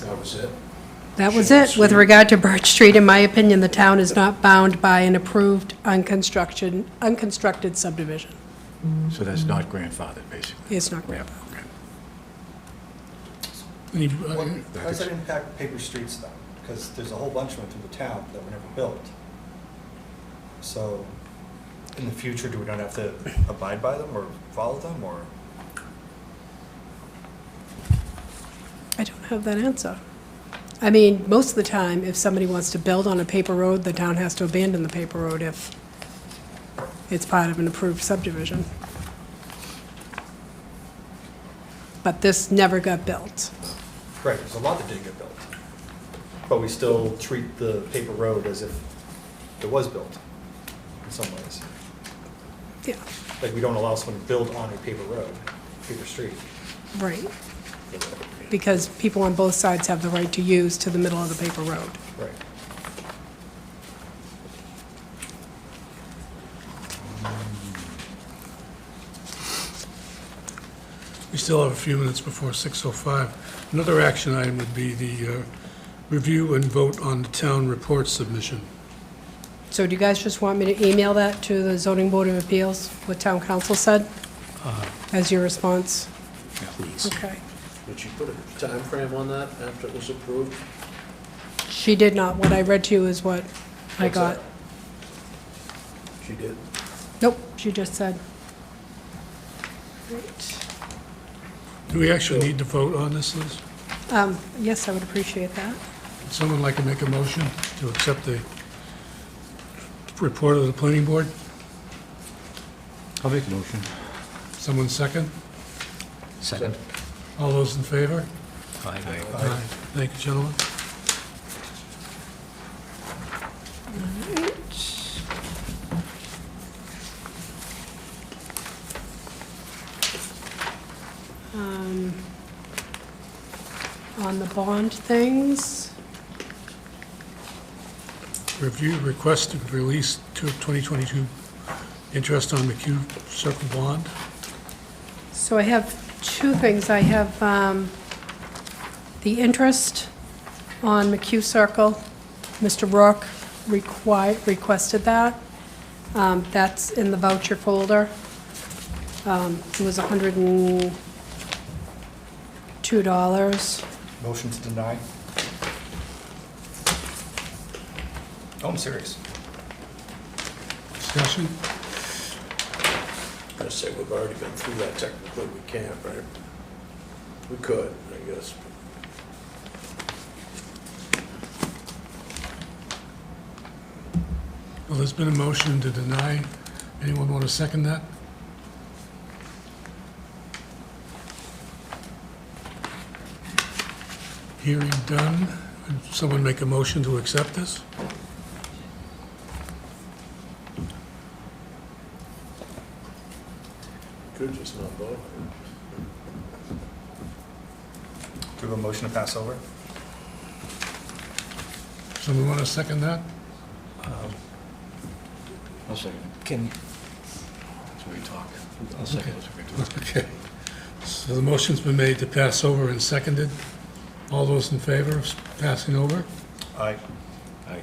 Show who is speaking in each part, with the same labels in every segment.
Speaker 1: That was it.
Speaker 2: That was it. With regard to Birch Street, in my opinion, the town is not bound by an approved unconstruction, unconstructed subdivision.
Speaker 3: So that's not grandfathered, basically.
Speaker 2: It's not grandfathered.
Speaker 3: Okay.
Speaker 4: Any-
Speaker 5: What-
Speaker 4: uh,
Speaker 5: How does that impact paper streets though? Because there's a whole bunch of them through the town that were never built. So in the future, do we not have to abide by them or follow them or?
Speaker 2: I don't have that answer. I mean, most of the time, if somebody wants to build on a paper road, the town has to abandon the paper road if it's part of an approved subdivision. But this never got built.
Speaker 5: Right, there's a lot that didn't get built. But we still treat the paper road as if it was built in some ways.
Speaker 2: Yeah,
Speaker 5: Like we don't allow someone to build on a paper road, paper street.
Speaker 2: right. Because people on both sides have the right to use to the middle of the paper road.
Speaker 5: Right.
Speaker 4: We still have a few minutes before 6:05. Another action item would be the uh, review and vote on the town report submission.
Speaker 2: So do you guys just want me to email that to the zoning board of appeals, what town council said?
Speaker 1: Uh,
Speaker 2: As your response?
Speaker 3: Please.
Speaker 2: Okay.
Speaker 1: Would you put a time frame on that after it was approved?
Speaker 2: She did not. What I read to you is what I
Speaker 1: What's
Speaker 2: got.
Speaker 1: that? She did.
Speaker 2: Nope, she just said. Right.
Speaker 4: Do we actually need to vote on this, Liz?
Speaker 2: Um, Yes, I would appreciate that.
Speaker 4: Would someone like to make a motion to accept the report of the planning board?
Speaker 3: I'll make a motion.
Speaker 4: Someone second?
Speaker 3: Second.
Speaker 4: All those in favor?
Speaker 3: Aye.
Speaker 4: Aye. Thank you, gentlemen.
Speaker 2: Um, On the bond things,
Speaker 4: Review request to release to 2022 interest on McHugh Circle Bond.
Speaker 2: so I have two things. I have um, the interest on McHugh Circle. Mr. Rourke requi- requested that. Um, That's in the voucher folder. Um, It was $102.
Speaker 5: Motion to deny? Oh, I'm serious.
Speaker 4: Discussion?
Speaker 1: I say we've already been through that technically, we can't, right? We could, I guess.
Speaker 4: Well, there's been a motion to deny. Anyone want to second that? Hearing done. Would Someone make a motion to accept this?
Speaker 1: Could just not vote.
Speaker 5: Do we have a motion to pass over?
Speaker 4: Someone want to second that?
Speaker 3: Um, I'll second it.
Speaker 5: Can,
Speaker 3: So we talk. I'll second it. so we talk.
Speaker 4: Okay. So the motion's been made to pass over and seconded. All those in favor of passing over?
Speaker 5: I,
Speaker 3: Aye.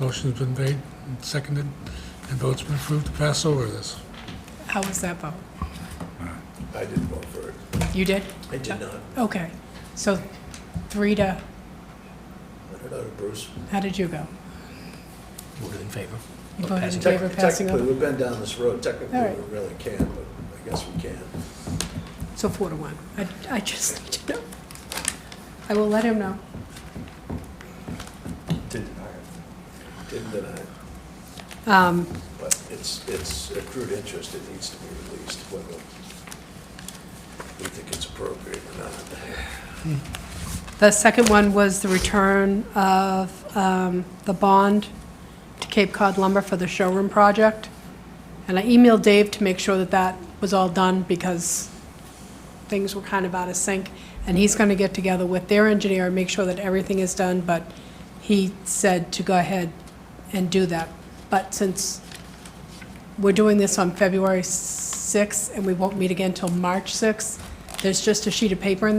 Speaker 4: Motion's been made and seconded, and votes been approved to pass over this.
Speaker 2: How was that vote?
Speaker 1: I didn't vote for it.
Speaker 2: You did?
Speaker 1: I did not.
Speaker 2: Okay. So three to,
Speaker 1: I don't know, Bruce.
Speaker 2: how did you go?
Speaker 3: Voted in favor.
Speaker 2: You voted in favor of passing
Speaker 1: Technically,
Speaker 2: over?
Speaker 1: we've been down this road, technically,
Speaker 2: All right.
Speaker 1: we really can, but I guess we can.
Speaker 2: So four to one. I, I just need to know. I will let him know.
Speaker 5: did deny it.
Speaker 1: Didn't deny it.
Speaker 2: Um,
Speaker 1: But it's, it's accrued interest, it needs to be released, whether we think it's appropriate or not.
Speaker 2: The second one was the return of um, the bond to Cape Cod Lumber for the showroom project. And I emailed Dave to make sure that that was all done because things were kind of out of sync. And he's going to get together with their engineer and make sure that everything is done. But he said to go ahead and do that. But since we're doing this on February 6th and we won't meet again until March 6th, there's just a sheet of paper in